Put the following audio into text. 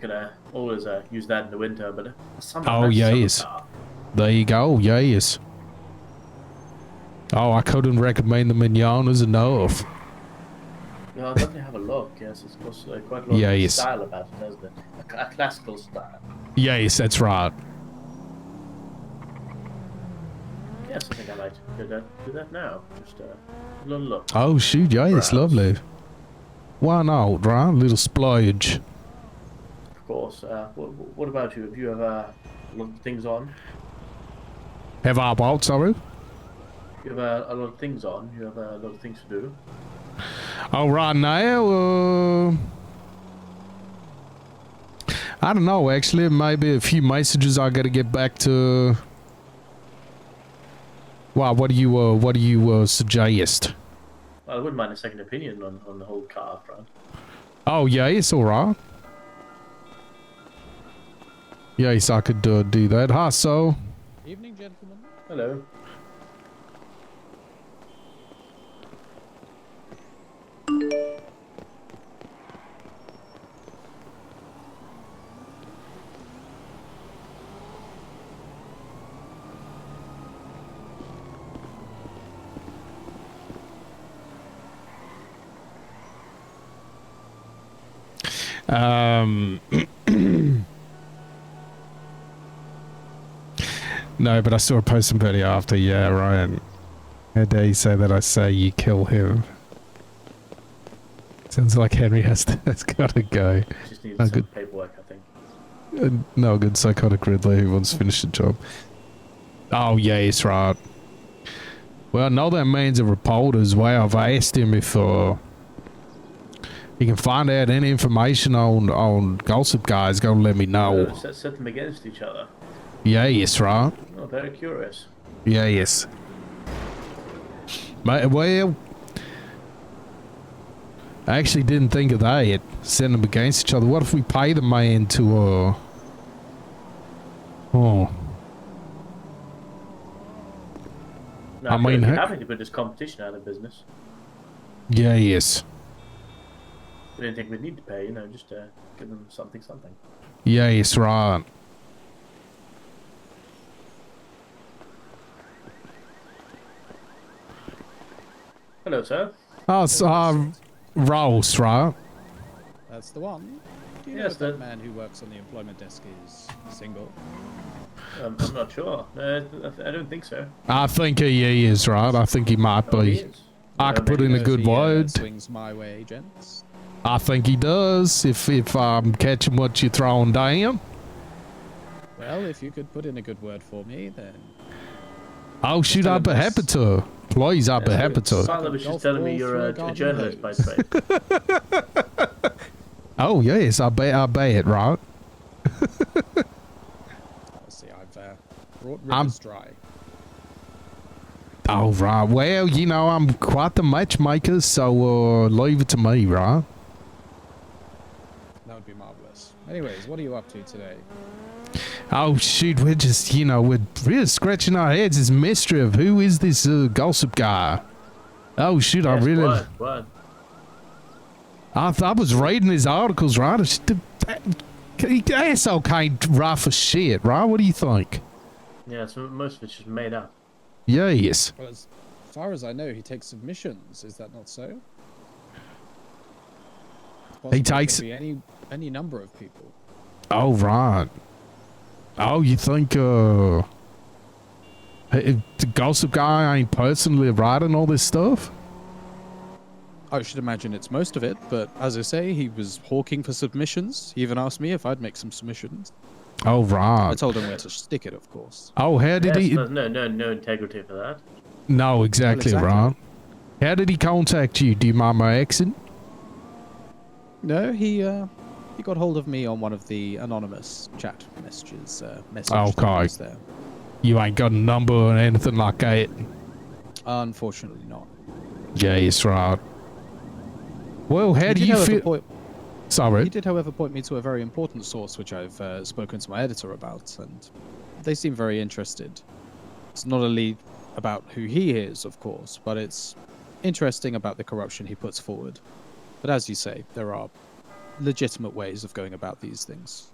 could uh, always uh, use that in the winter, but summer, Oh, that's yeah, summer yes. car. There you go. Yes. Oh, I couldn't recommend the mignonas enough. Yeah, I'll definitely have a look. Yes, it's got uh, quite a lot Yeah, of yes. style about it, hasn't it? A, cl- a classical style. Yes, that's right. Yes, I think I might do that, do that now. Just uh, a little look. Oh shoot, yeah, it's Perhaps. lovely. Why not, right? Little splurge. Of course. Uh, what, what about you? Have you ever lot of things on? Have I bought sorry? You have uh, a lot of things on. You have uh, a lot of things to do. Oh, right now, uh, I don't know. Actually, maybe a few messages I gotta get back to. Wow, what do you uh, what do you uh, suggest? I wouldn't mind a second opinion on, on the whole car front. Oh yeah, it's all right. Yes, I could uh, do that. Hi, so Evening, gentlemen. Hello. Um, no, but I saw a post somebody after. Yeah, Ryan. How dare you say that? I say you kill him. Sounds like Henry has to, has got to go. Just need Oh, some good. paperwork, I think. Uh, no good psychotic Riddler who wants to finish the job. Oh yes, right. Well, no, that means a reporter as well. I've asked him if uh, he can find out any information on on Gossip Guy. He's gonna let me Uh, know. set, set them against each other. Yes, right. Oh, very curious. Yes. Ma- Well, I actually didn't think of that. Send them against each other. What if we pay the man to, uh. Oh. No, I I mean, mean, heck- happy to put this competition out of business. Yeah, yes. We didn't think we'd need to pay, you know, just uh, give them something, something. Yes, right. Hello, sir. Oh, so, uh, Ross, right? That's the one. Do you Yes, know if that- that man who works on the employment desk is single? Um, I'm not sure. Uh, I th- I don't think so. I think he is, right? I think he might Oh, he be. is. I Uh, could put maybe in a If good he, uh, word. swings my way, gents. I think he does, if, if I'm catching what you're throwing down. Well, if you could put in a good word for me, then Oh, shoot, I'd be happy to. Please, I'd be Yeah, happy to. Tyler was just Golf telling me ball you're through a a, a garden journalist by hose. trade. Oh yes, I bet I bet, right? I'll see. I've uh, brought I'm- rivers dry. Oh right. Well, you know I'm quite the matchmaker, so uh, leave it to me, right? That would be marvelous. Anyways, what are you up to today? Oh shoot, we're just you know we're really scratching our heads. This mystery of who is this uh, gossip guy? Oh shoot, I Yes, really word, word. I, th- I was reading his articles, right? It's the- that- he- Asshole can't write for shit, right? What do you think? Yeah, so most of it's just made up. Yes. Well, as far as I know, he takes submissions. Is that not so? Possibly it could takes- be any any number of people. Oh right. Oh, you think uh, eh, the gossip guy ain't personally writing all this stuff? I should imagine it's most of it, but as I say, he was hawking for submissions. He even asked me if I'd make some submissions. Oh I right. told him where to stick it, of course. Oh, how did Yes, he? there's no, no, no integrity for that. No, exactly, Well, right. exactly. How did he contact you? Do you mind my accent? No, he uh, he got hold of me on one of the anonymous chat messages. Uh, message Okay. things there. You ain't got a number or anything like that. Unfortunately, not. Yes, right. Well, how He do did, you however, feel? point- Sorry. he did, however, point me to a very important source which I've uh, spoken to my editor about, and they seem very interested. It's not only about who he is, of course, but it's interesting about the corruption he puts forward. But as you say, there are legitimate ways of going about these things.